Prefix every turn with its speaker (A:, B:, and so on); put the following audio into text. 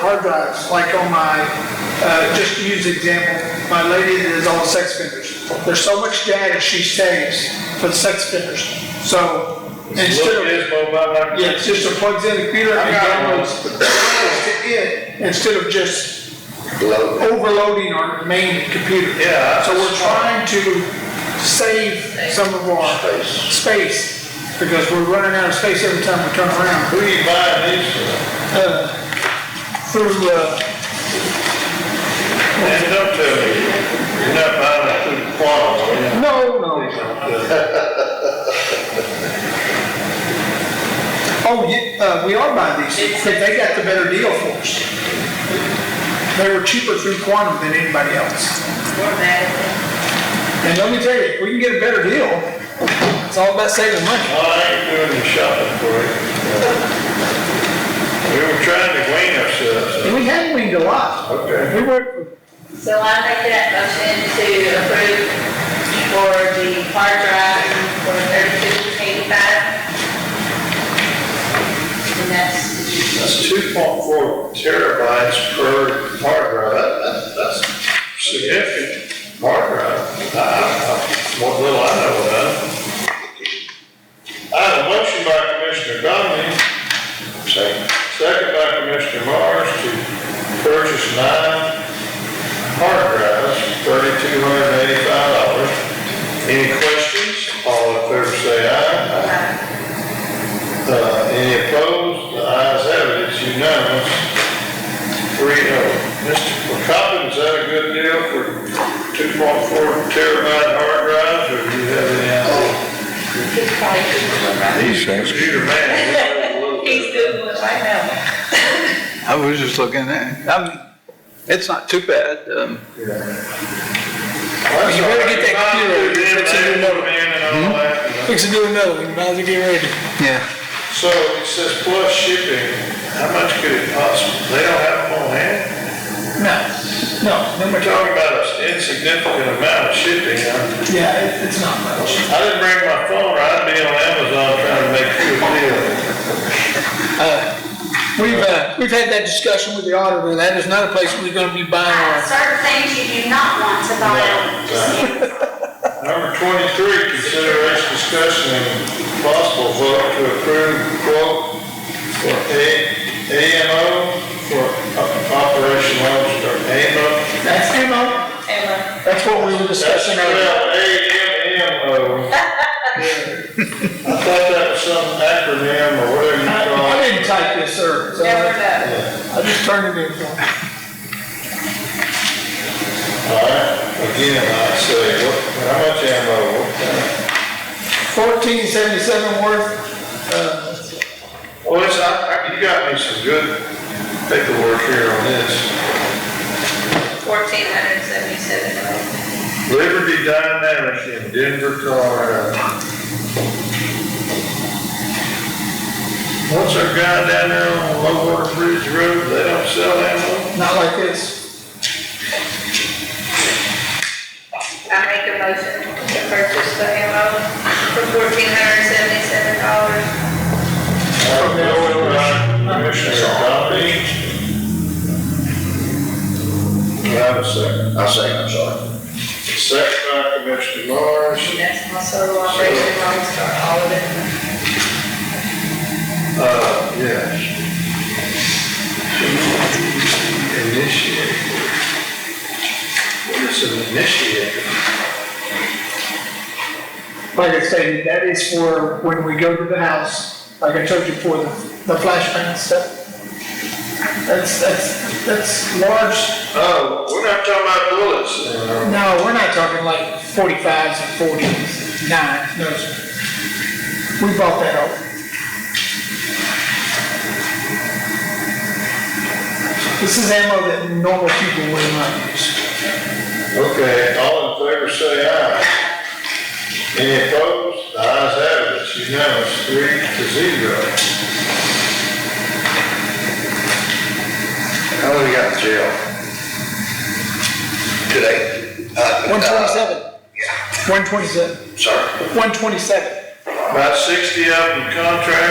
A: hard drives, like on my, uh, just to use the example, my lady that is on sex offenders. There's so much data she saves for the sex offenders. So instead
B: Look at
A: of,
B: his mobile like
A: yeah, it's just it plugs in the computer and downloads the files to it instead of just
C: Load.
A: overloading our main computer.
B: Yeah.
A: So we're trying to save some of our
C: Space.
A: space because we're running out of space every time we turn around.
B: Who you buying these from?
A: through, uh,
B: Stand up to me. You're not buying that through the quarter, are you?
A: no, no. Oh, yeah, uh, we are buying these, because they got the better deal for us. They were cheaper through Quantum than anybody else. And let me tell you, if we can get a better deal, it's all about saving money.
B: Well, I ain't doing the shopping for you. We were trying to wean ourselves.
A: And we had weaned a lot.
B: Okay.
A: We were,
D: So I make that motion to approve for the hard drive for thirty-two eighty-five. And that's,
B: That's two point four terabytes per hard drive. That- that- That's significant hard drive. I- I- I- What little I know about it. I have a motion by Commissioner Donnelly,
C: Second.
B: second by Commissioner Mars to purchase nine hard drives, thirty-two hundred and eighty-five dollars. Any questions? All in favor say aye.
D: uh,
B: Uh, any opposed? The ayes have it, it's unanimous. Three oh. Mr. Coppin, is that a good deal for two point four terabyte hard drives, or do you have any? idea?
D: he's probably.
E: These things.
B: Computer man.
D: He's Googling right now.
E: I was just looking at, it. um, it's not too bad, um,
B: You
A: better get that computer, it's in your Hmm? note.
B: and all that.
A: fixing to do another one, might as well get ready.
E: yeah.
B: So it says plus shipping, how much could it possibly, they don't have them on hand?
A: No, no, no
B: We're
A: much.
B: talking about an insignificant amount of shipping, huh?
A: Yeah, it- it's not much.
B: I didn't bring my phone, or I'd be on Amazon trying to make you a deal.
A: We've, uh, we've had that discussion with the auditor, that is not a place we're gonna be buying our.
F: Certain things you do not want to buy.
B: Number twenty-three, consideration discussion and possible vote to approve quote for A, AMO for o- Operation Lone Star, AMO.
A: That's ammo.
D: Emma,
A: That's what we were discussing earlier.
B: A-M-M-O. I thought that was some acronym or whatever you call
A: I
B: it.
A: didn't type this, sir. so
D: never know.
A: I just turned it in.
B: All right, again, I say, what, how much ammo? What kind of-
A: Fourteen seventy-seven worth.
B: Well, it's, I, I- you got me some good paperwork here on this.
D: Fourteen hundred seventy-seven.
B: Liberty Dynamics in Denver, Colorado. What's our guy down there on Low Water Bridge Road, they don't sell ammo?
A: Not like this.
D: I make a motion to purchase the ammo for fourteen hundred seventy-seven dollars.
B: Our bill by Commissioner Coffey. Do I have a second?
C: I say, I'm sorry.
B: Second by Commissioner Morris.
D: And that's my solo operation, Lone Star, all of it.
B: Uh, yes. Initiate. What is an initiator?
A: Like I stated, that is for when we go to the house, like I told you for the, the flashbang stuff. That's, that's, that's large.
B: Oh, we're not talking about bullets. uh,
A: No, we're not talking like forty-fives and forties, nines, no, sir. We bought that out. This is ammo that normal people would not use.
B: Okay, all in favor say aye. Any opposed? The ayes have it, it's unanimous, three to zero.
C: How long you got in jail? Today? Uh,
A: One twenty-seven. One twenty-seven.
C: Sorry?
A: One twenty-seven.
B: About sixty of them contract